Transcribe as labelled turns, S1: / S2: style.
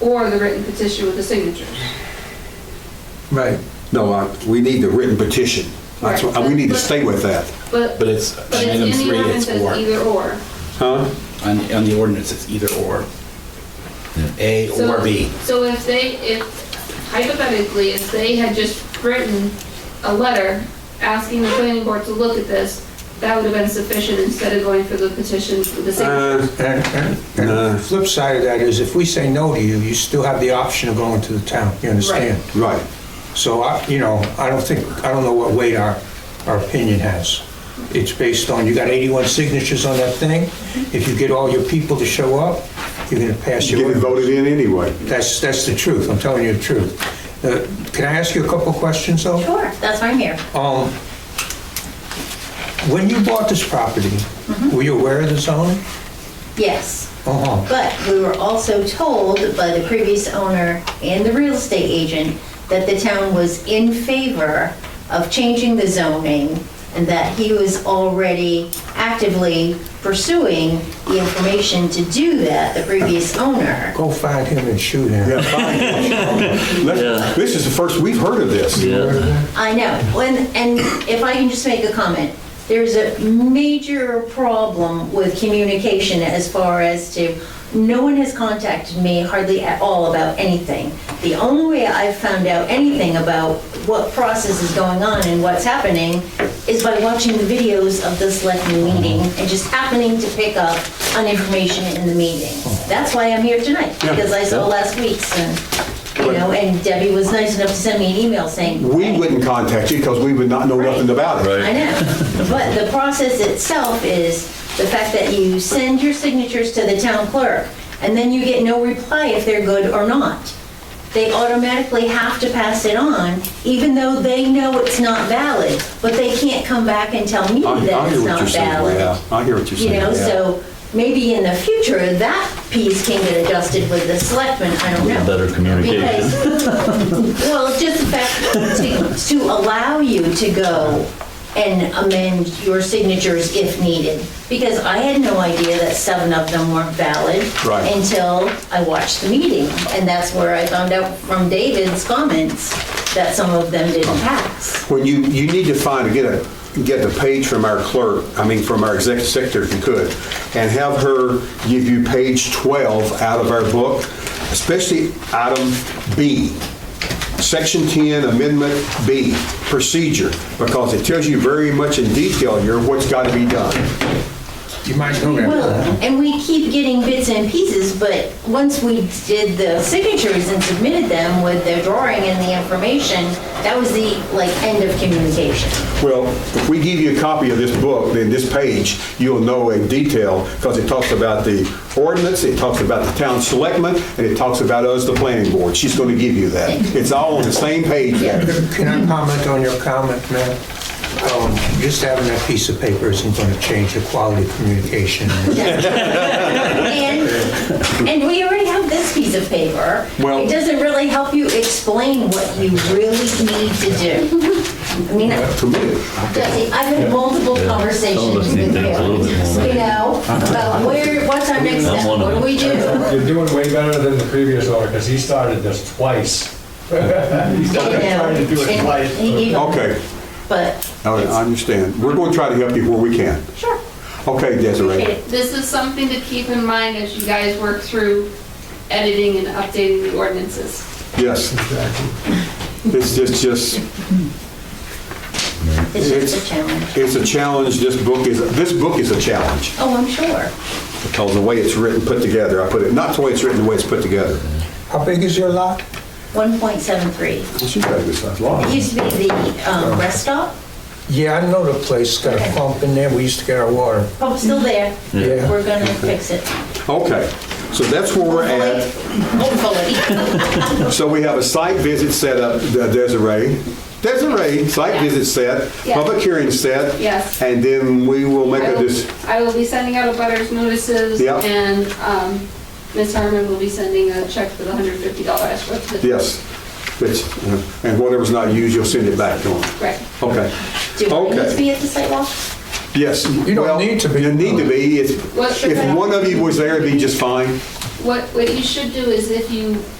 S1: or the written petition with the signatures.
S2: Right.
S3: No, I- we need the written petition. That's what- We need to stay with that.
S1: But,
S4: But
S1: but
S4: it's,
S1: it's
S4: on item
S1: in the
S4: three,
S1: ordinance
S4: it's
S1: as
S4: or.
S1: either or.
S3: Huh?
S4: On, on the ordinance, it's either or. A
S1: So-
S4: or B.
S1: So if they, if hypothetically, if they had just written a letter asking the planning board to look at this, that would have been sufficient instead of going for the petition with the signatures.
S3: Uh,
S2: And, and, and
S3: Nah.
S2: the flip side of that is if we say no to you, you still have the option of going to the town, you understand?
S3: Right.
S2: So I, you know, I don't think, I don't know what weight our, our opinion has. It's based on, you got 81 signatures on that thing. If you get all your people to show up, you're gonna pass your.
S3: Get it voted in anyway.
S2: That's, that's the truth, I'm telling you the truth. Uh, Can I ask you a couple questions though?
S5: Sure, that's why I'm here.
S2: Um, When you bought this property,
S3: Mm-hmm.
S2: were you aware of the zoning?
S5: Yes,
S2: Uh-huh,
S5: but we were also told by the previous owner and the real estate agent that the town was in favor of changing the zoning and that he was already actively pursuing the information to do that, the previous owner.
S2: go find him and shoot him.
S3: Let's- This is the first we've heard of this.
S5: I know, When and if I can just make a comment, there's a major problem with communication as far as to, no one has contacted me hardly at all about anything. The only way I've found out anything about what process is going on and what's happening is by watching the videos of the selectmen meeting and just happening to pick up on information in the meeting. That's why I'm here tonight, because I saw last week's and, you know, and Debbie was nice enough to send me an email saying,
S3: We wouldn't contact you because we would not know nothing about it.
S5: I know, but the process itself is the fact that you send your signatures to the town clerk, and then you get no reply if they're good or not. They automatically have to pass it on, even though they know it's not valid, but they can't come back and tell me
S3: I I
S5: that
S3: hear
S5: it's
S3: what
S5: not
S3: you're saying.
S5: valid.
S3: Yeah, I hear what you're
S5: You
S3: saying.
S5: know,
S3: yeah.
S5: so maybe in the future, that piece can get adjusted with the selectmen, I don't know.
S6: Better communication.
S5: Because, well, just the fact to, to allow you to go and amend your signatures if needed. Because I had no idea that seven of them weren't valid.
S3: Right.
S5: Until I watched the meeting. And that's where I found out from David's comments that some of them didn't pass.
S3: When you, you need to find, get a, get the page from our clerk, I mean, from our executive secretary if you could, and have her give you page 12 out of our book, especially item B, section 10, amendment B, procedure, because it tells you very much in detail here what's got to be done.
S2: You might know that.
S5: Well, and we keep getting bits and pieces, but once we did the signatures and submitted them with the drawing and the information, that was the, like, end of communication.
S3: Well, if we give you a copy of this book, then this page, you'll know in detail, because it talks about the ordinance, it talks about the town selectmen, and it talks about us, the planning board. She's going to give you that. It's all on the same page there.
S2: Can I comment on your comment, man? Um, Just having that piece of paper isn't going to change the quality of communication.
S5: And, and we already have this piece of paper.
S3: Well-
S5: It doesn't really help you explain what you really need to do. I mean,
S3: To me,
S5: Jesse, I've had multiple
S6: Some
S5: conversations
S6: of us
S5: with you,
S6: need things a little bit more.
S5: you know, about where, what's our next step,
S6: one of
S5: what do we do?
S7: You're doing way better than the previous owner, because he started this twice. He started trying to do it twice.
S3: okay,
S5: But,
S3: all right, I understand. We're going to try to help you where we can.
S5: sure.
S3: Okay, Desiree.
S1: This is something to keep in mind as you guys work through editing and updating the ordinances.
S3: Yes. It's just, just,
S5: It's just
S3: It's-
S5: a challenge.
S3: it's a challenge. This book is, this book is a challenge.
S5: Oh, I'm sure.
S3: Because the way it's written, put together, I put it, not the way it's written, the way it's put together.
S2: How big is your lot?
S5: 1.73.
S3: She's got a good size lot.
S5: It used to be the um, rest stop,
S2: Yeah, I know the place, got a pump in there, we used to get our water.
S5: pump's still there.
S2: Yeah.
S5: We're gonna fix it.
S3: Okay, so that's where we're at.
S5: Hopefully.
S3: So we have a site visit set up, uh, Desiree. Desiree, site
S1: Yeah.
S3: visit set,
S1: Yeah.
S3: public hearing set.
S1: Yes.
S3: And then we will make
S1: I
S3: a,
S1: will-
S3: dis-
S1: I will be sending out a butters notices,
S3: Yeah.
S1: and um, Ms. Harmon will be sending a check for the $150 I spoke to.
S3: yes, which, uh, and whatever's not used, you'll send it back to them.
S1: Right.
S3: Okay,
S5: Do I need to
S3: okay.
S5: be at the sidewalk?
S3: Yes.
S2: You don't
S3: Well,
S2: need to be.
S3: You need to be. If
S1: What's the
S3: if
S1: cutoff?
S3: one of you was there, it'd be just fine.
S1: What, what you should do is if you